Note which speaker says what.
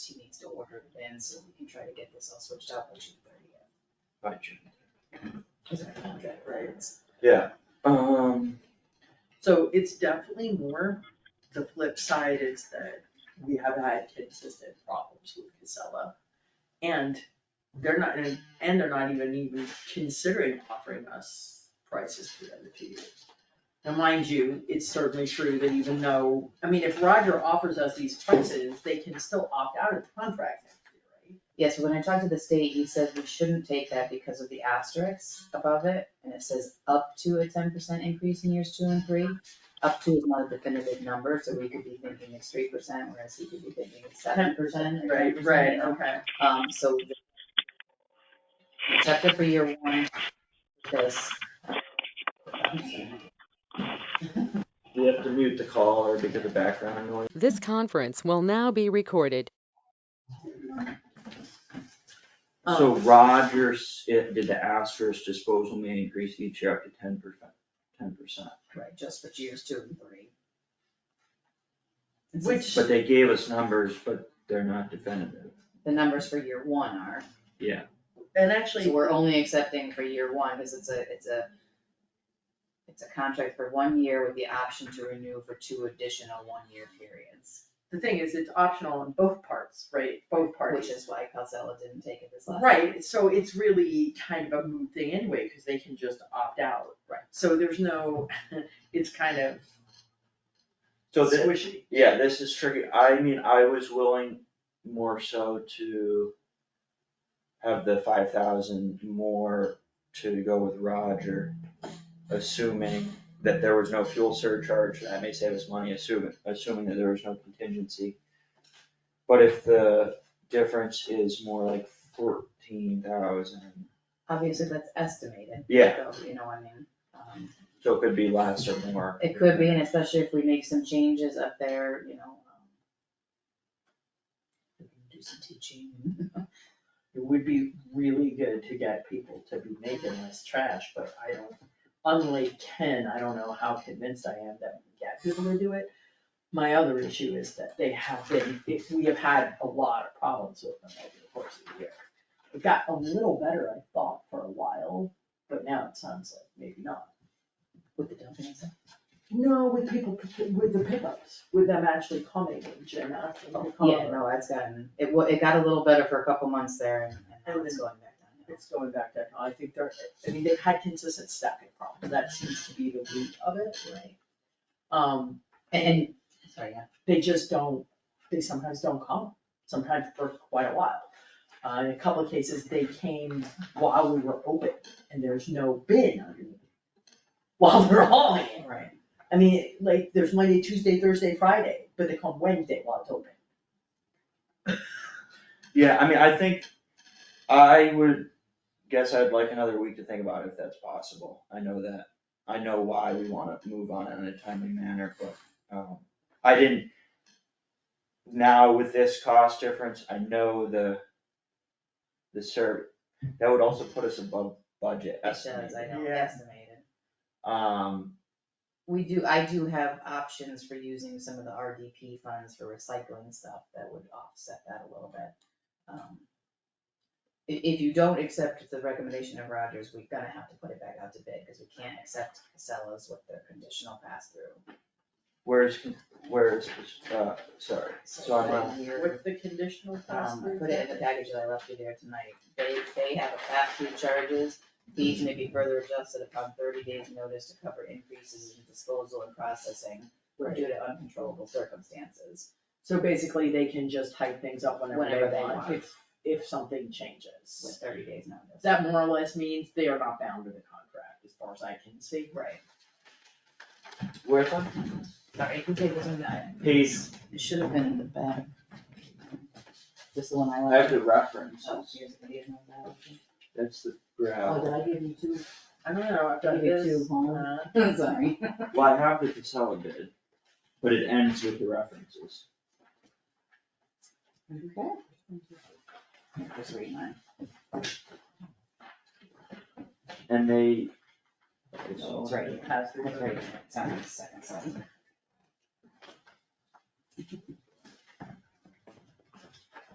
Speaker 1: to order then, so we can try to get this all switched out by June thirtieth.
Speaker 2: by June.
Speaker 1: Is our contract, right?
Speaker 2: Yeah, um,
Speaker 3: So it's definitely more, the flip side is that we have had consistent problems with Casella. And they're not, and and they're not even even considering offering us prices for the other two years. Now, mind you, it's certainly true that even though, I mean, if Roger offers us these prices, they can still opt out of the contract next year,
Speaker 4: Yes, when I talked to the state, he says we shouldn't take that because of the asterisks above it, and it says up to a ten percent increase in years two and three. Up to is not a definitive number, so we could be thinking it's three percent, whereas he could be thinking it's seven percent or
Speaker 3: right?
Speaker 4: eight percent.
Speaker 3: okay.
Speaker 4: Um, so the- chapter for year one, because.
Speaker 2: we have to mute the caller because of background noise.
Speaker 5: This conference will now be recorded.
Speaker 2: So
Speaker 3: Um,
Speaker 2: Rogers, it, did the asterisk disposal may increase each year up to ten percent, ten percent.
Speaker 4: Right, just for years two and three.
Speaker 3: Which,
Speaker 2: But they gave us numbers, but they're not definitive.
Speaker 4: The numbers for year one are.
Speaker 2: Yeah,
Speaker 3: and actually,
Speaker 4: So we're only accepting for year one, because it's a, it's a, it's a contract for one year with the option to renew for two additional one-year periods,
Speaker 3: the thing is, it's optional on both parts, right? Both parties.
Speaker 4: which is why Casella didn't take it this last.
Speaker 3: Right, so it's really kind of a moot thing anyway, cause they can just opt out.
Speaker 4: Right.
Speaker 3: So there's no, it's kind of
Speaker 2: so thi-
Speaker 3: squishy.
Speaker 2: yeah, this is tricky. I mean, I was willing more so to have the five thousand more to go with Roger, assuming that there was no fuel surcharge, that may save us money, assuming, assuming that there was no contingency. But if the difference is more like fourteen thousand,
Speaker 4: Obviously, that's estimated.
Speaker 2: Yeah.
Speaker 4: So, you know, I mean, um,
Speaker 2: so it could be less or more.
Speaker 4: it could be, and especially if we make some changes up there, you know. um, we can Do some teaching.
Speaker 3: It would be really good to get people to be making less trash, but I don't, unlike Ken, I don't know how convinced I am that we get people to do it. My other issue is that they have been, if we have had a lot of problems with them over the course of the year. It got a little better, I thought, for a while, but now it sounds like maybe not.
Speaker 4: With the dumping and stuff.
Speaker 3: No, with people, with the pickups, with them actually coming and Jim asking to come.
Speaker 4: Oh, Yeah, no, it's gotten, it wa, it got a little better for a couple months there, and, and now it's going back down.
Speaker 3: It's going back there. I think they're, I mean, they've had consistent staffing problems. That seems to be the root of it.
Speaker 4: Right.
Speaker 3: Um,
Speaker 4: And, sorry, yeah.
Speaker 3: they just don't, they sometimes don't come, sometimes for quite a while. Uh, in a couple of cases, they came while we were open and there's no bin underneath. While they're hauling it.
Speaker 4: Right.
Speaker 3: I mean, like, there's Monday, Tuesday, Thursday, Friday, but they come Wednesday while it's open.
Speaker 2: Yeah, I mean, I think, I would guess I'd like another week to think about it if that's possible. I know that, I know why we wanna move on in a timely manner, but, um, I didn't. Now with this cost difference, I know the, the serv, that would also put us above budget
Speaker 4: It does, I
Speaker 2: estimate.
Speaker 4: know,
Speaker 3: Yeah.
Speaker 4: estimated.
Speaker 2: Um,
Speaker 4: We do, I do have options for using some of the RDP funds for recycling stuff that would offset that a little bit. Um, i- If, you don't accept the recommendation of Rogers, we're gonna have to put it back out to bid, because we can't accept Casella's with their conditional pass-through.
Speaker 2: where's, con- where's, uh, sorry, so I'm, uh,
Speaker 4: Your-
Speaker 3: the conditional
Speaker 4: Um, I put it in the package that I left you there tonight. They, they have a pass-through charges. These may be further adjusted upon thirty days' notice to cover increases in disposal and processing due to uncontrollable circumstances.
Speaker 3: So basically, they can just hike things up whenever
Speaker 4: Whenever
Speaker 3: they
Speaker 4: they
Speaker 3: want,
Speaker 4: want.
Speaker 3: if, if something changes.
Speaker 4: With thirty days' notice.
Speaker 3: That more or less means they are not bound to the contract, as far as I can see.
Speaker 4: Right.
Speaker 2: where's one?
Speaker 4: Sorry, you can take this one. I-
Speaker 2: Page,
Speaker 4: It should have been in the back. This is the one I
Speaker 2: I have
Speaker 4: left.
Speaker 2: the reference,
Speaker 4: Oh, here's the original ballot.
Speaker 2: that's the
Speaker 4: Oh,
Speaker 2: graph.
Speaker 4: did I give you two?
Speaker 3: I don't know, I've
Speaker 4: Give you two, huh? Sorry.
Speaker 2: Well, I have the Casella bid, but it ends with the references.
Speaker 4: Okay. Just read mine.
Speaker 2: And they.
Speaker 4: No, it's right here. That's right, it's on the second slide.